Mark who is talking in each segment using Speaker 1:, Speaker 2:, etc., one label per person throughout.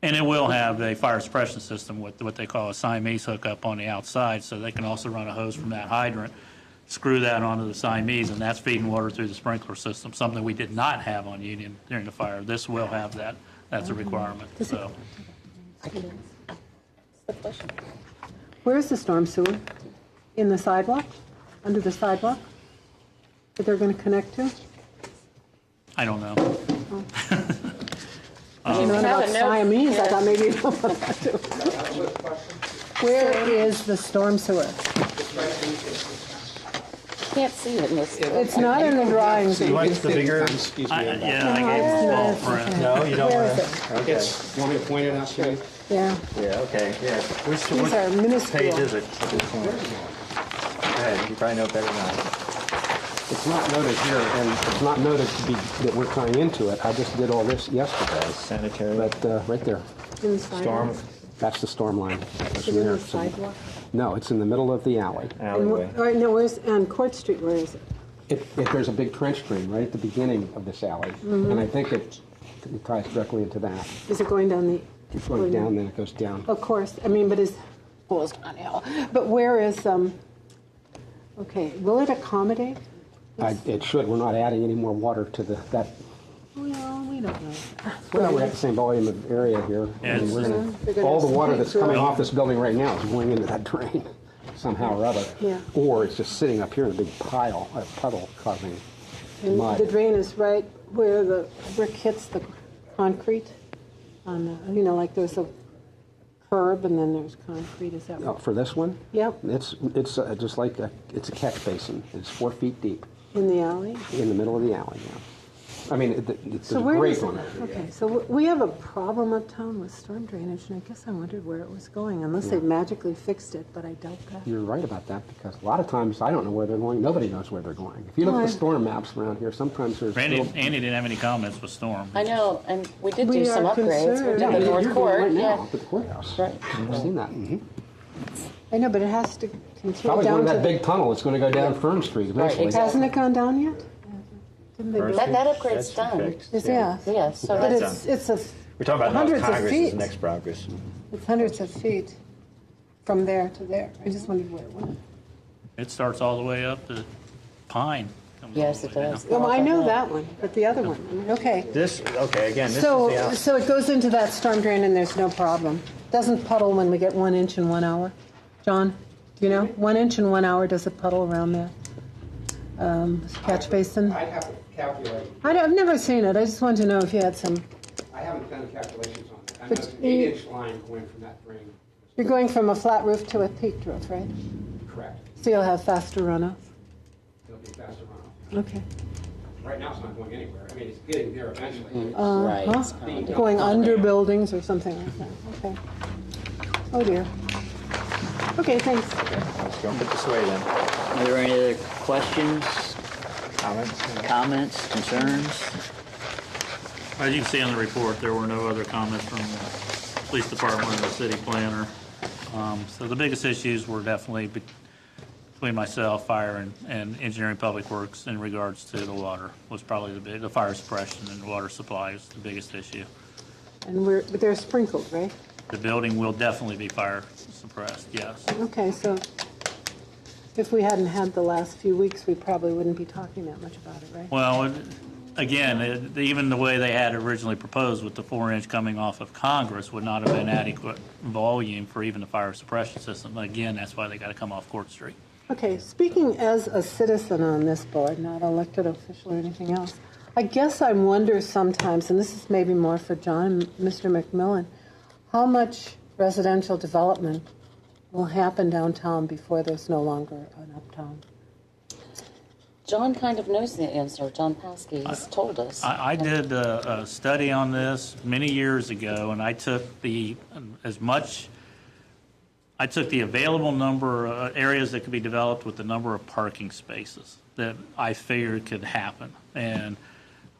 Speaker 1: And it will have a fire suppression system with what they call a Siamese hookup on the outside, so they can also run a hose from that hydrant, screw that onto the Siamese, and that's feeding water through the sprinkler system, something we did not have on Union during the fire. This will have that, that's a requirement, so.
Speaker 2: Where's the storm sewer? In the sidewalk? Under the sidewalk? That they're going to connect to?
Speaker 1: I don't know.
Speaker 2: You know
Speaker 3: Um, have
Speaker 2: about
Speaker 3: a note
Speaker 2: Siamese, I
Speaker 3: here.
Speaker 2: thought maybe you know about that too. Where is the storm sewer?
Speaker 3: Can't see it in this.
Speaker 2: It's not in the drawings.
Speaker 4: You like the bigger?
Speaker 5: Excuse
Speaker 1: I-
Speaker 5: me. I'm not-
Speaker 1: Yeah, I gave it small print.
Speaker 4: No, you don't
Speaker 2: Where
Speaker 4: want
Speaker 2: is
Speaker 4: to.
Speaker 2: it?
Speaker 4: Okay.
Speaker 5: It's- Want me to point it out to you?
Speaker 2: Yeah,
Speaker 4: Yeah, okay, yeah. Which,
Speaker 2: these are
Speaker 4: which page
Speaker 2: minuscule.
Speaker 4: is it? Go ahead, you probably know better than I.
Speaker 5: It's not noted here, and it's not noted to be, that we're tying into it. I just did all this yesterday.
Speaker 4: Sanitary,
Speaker 5: But, uh, right there,
Speaker 2: In the
Speaker 4: storm
Speaker 2: sidewalk.
Speaker 5: that's the storm line.
Speaker 2: Is
Speaker 5: That's
Speaker 2: it
Speaker 5: from
Speaker 2: in
Speaker 5: there.
Speaker 2: the sidewalk?
Speaker 5: No, it's in the middle of the alley.
Speaker 2: And
Speaker 4: alleyway.
Speaker 2: wh- All right, no, where's, on Court Street, where is it?
Speaker 5: It, it, there's a big trench drain right at the beginning of this alley,
Speaker 2: Mm-hmm.
Speaker 5: and I think it it ties directly into that.
Speaker 2: Is it going down the?
Speaker 5: It's
Speaker 2: Oh,
Speaker 5: going down, then it goes down.
Speaker 2: Of course, I mean, but is, well, it's not hell, but where is, um, okay, will it accommodate?
Speaker 5: I, it should, we're not adding any more water to the, that,
Speaker 2: Well, we don't know.
Speaker 5: well, we're at the same volume of area here.
Speaker 1: Yeah,
Speaker 5: and
Speaker 1: it's
Speaker 5: we're gonna-
Speaker 2: They're gonna
Speaker 5: All the water that's
Speaker 2: sneak through.
Speaker 5: coming off this building right now is going into that drain somehow or other.
Speaker 2: Yeah.
Speaker 5: Or it's just sitting up here in a big pile, a puddle causing
Speaker 2: And
Speaker 5: mud.
Speaker 2: the drain is right where the brick hits the concrete on the, you know, like there's a curb and then there's concrete, is that
Speaker 5: Uh,
Speaker 2: right?
Speaker 5: For this one?
Speaker 2: Yep.
Speaker 5: It's, it's uh, just like, a- it's a catch basin. It's four feet deep
Speaker 2: In the alley?
Speaker 5: in the middle of the alley now. I mean, it- it- there's
Speaker 2: So
Speaker 5: a
Speaker 2: where is
Speaker 5: grate
Speaker 2: it?
Speaker 5: on it.
Speaker 2: Okay, so w- we have a problem uptown with storm drainage and I guess I wondered where it was going, unless they magically fixed it, but I doubt that.
Speaker 5: You're right about that because a lot of times I don't know where they're going. Nobody knows where they're going. If you look at
Speaker 2: Right.
Speaker 5: the storm maps around here, sometimes there's.
Speaker 1: Randy,
Speaker 5: little-
Speaker 1: Andy didn't have any comments with storm.
Speaker 3: I know, and we did
Speaker 2: We
Speaker 3: do some
Speaker 2: are
Speaker 3: upgrades. We
Speaker 2: concerned.
Speaker 3: did the
Speaker 5: Yeah, you're
Speaker 3: North
Speaker 5: doing
Speaker 3: Court,
Speaker 5: right now
Speaker 3: yeah.
Speaker 5: at the courthouse.
Speaker 3: Right.
Speaker 5: I've seen that. Mhm.
Speaker 2: I know, but it has to continue
Speaker 5: Probably
Speaker 2: down
Speaker 5: going
Speaker 2: to
Speaker 5: that
Speaker 2: the
Speaker 5: big tunnel. It's going to go down Fern Street eventually.
Speaker 3: exactly.
Speaker 2: Hasn't it gone down yet? Didn't they
Speaker 3: That,
Speaker 2: build-
Speaker 3: that upgrade's
Speaker 4: That's
Speaker 3: done.
Speaker 4: fixed.
Speaker 2: It's, yeah.
Speaker 3: Yes, so
Speaker 2: But
Speaker 3: that's,
Speaker 2: it's, it's a,
Speaker 4: We're talking about
Speaker 2: Hundreds
Speaker 4: House
Speaker 2: of
Speaker 4: Congress is
Speaker 2: feet.
Speaker 4: the next progress.
Speaker 2: it's hundreds of feet from there to there. I just wondered where it went.
Speaker 1: It starts all the way up to Pine. comes all
Speaker 3: yes,
Speaker 1: the
Speaker 3: it
Speaker 1: way down.
Speaker 3: does.
Speaker 2: Well, Oh, I know that one, but the other one, I mean, okay.
Speaker 4: This, okay, again, this is the uh,
Speaker 2: So,
Speaker 4: alley.
Speaker 2: so it goes into that storm drain and there's no problem. Doesn't puddle when we get one inch in one hour? John, do you know? One inch in one hour, does it puddle around there? Um, catch basin?
Speaker 6: I'd have to calculate,
Speaker 2: I don't- I've never seen it. I just wanted to know if you had some.
Speaker 6: I haven't done calculations on that. I know
Speaker 2: But
Speaker 6: it's an
Speaker 2: you-
Speaker 6: eight-inch line going from that drain,
Speaker 2: You're going from a flat roof to a peaked roof, right?
Speaker 6: correct,
Speaker 2: So you'll have faster runoff.
Speaker 6: it'll be faster runoff.
Speaker 2: Okay.
Speaker 6: Right now, it's not going anywhere, I mean, it's getting there
Speaker 5: Mm-hmm.
Speaker 6: eventually.
Speaker 3: Right.
Speaker 2: Huh?
Speaker 3: it's kind of-
Speaker 2: Going under buildings or something like that, okay. Oh dear. Okay, thanks.
Speaker 4: Let's go and put this way then.
Speaker 7: Are there any other questions,
Speaker 4: Comments?
Speaker 7: comments, concerns?
Speaker 1: As you can see in the report, there were no other comments from the police department or the city planner. Um, So the biggest issues were definitely be- between myself, fire, and- and engineering public works in regards to the water was probably the big, the fire suppression and water supply is the biggest issue.
Speaker 2: And we're, but they're sprinkled, right?
Speaker 1: The building will definitely be fire suppressed, yes.
Speaker 2: Okay, so if we hadn't had the last few weeks, we probably wouldn't be talking that much about it, right?
Speaker 1: Well, it- again, it- even the way they had originally proposed with the four-inch coming off of Congress would not have been adequate volume for even the fire suppression system. Again, that's why they got to come off Court Street.
Speaker 2: Okay, speaking as a citizen on this board, not elected official or anything else, I guess I wonder sometimes, and this is maybe more for John, Mr. McMillan, how much residential development will happen downtown before there's no longer an uptown?
Speaker 3: John kind of knows the answer. John Paskey has told us.
Speaker 1: I, I did a, a study on this many years ago, and I took the, as much, I took the available number, uh, areas that could be developed with the number of parking spaces that I figured could happen. And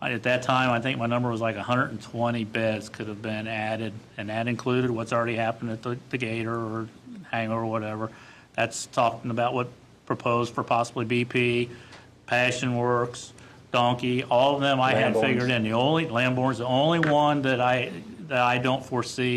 Speaker 1: I- at that time, I think my number was like 120 beds could have been added, and that included what's already happened at the the Gator or Hangar or whatever. That's talking about what proposed for possibly BP, Passion Works, Donkey, all of them I had
Speaker 4: Lamborns.
Speaker 1: figured in. The only, Lamborn's the only one that I, that I don't foresee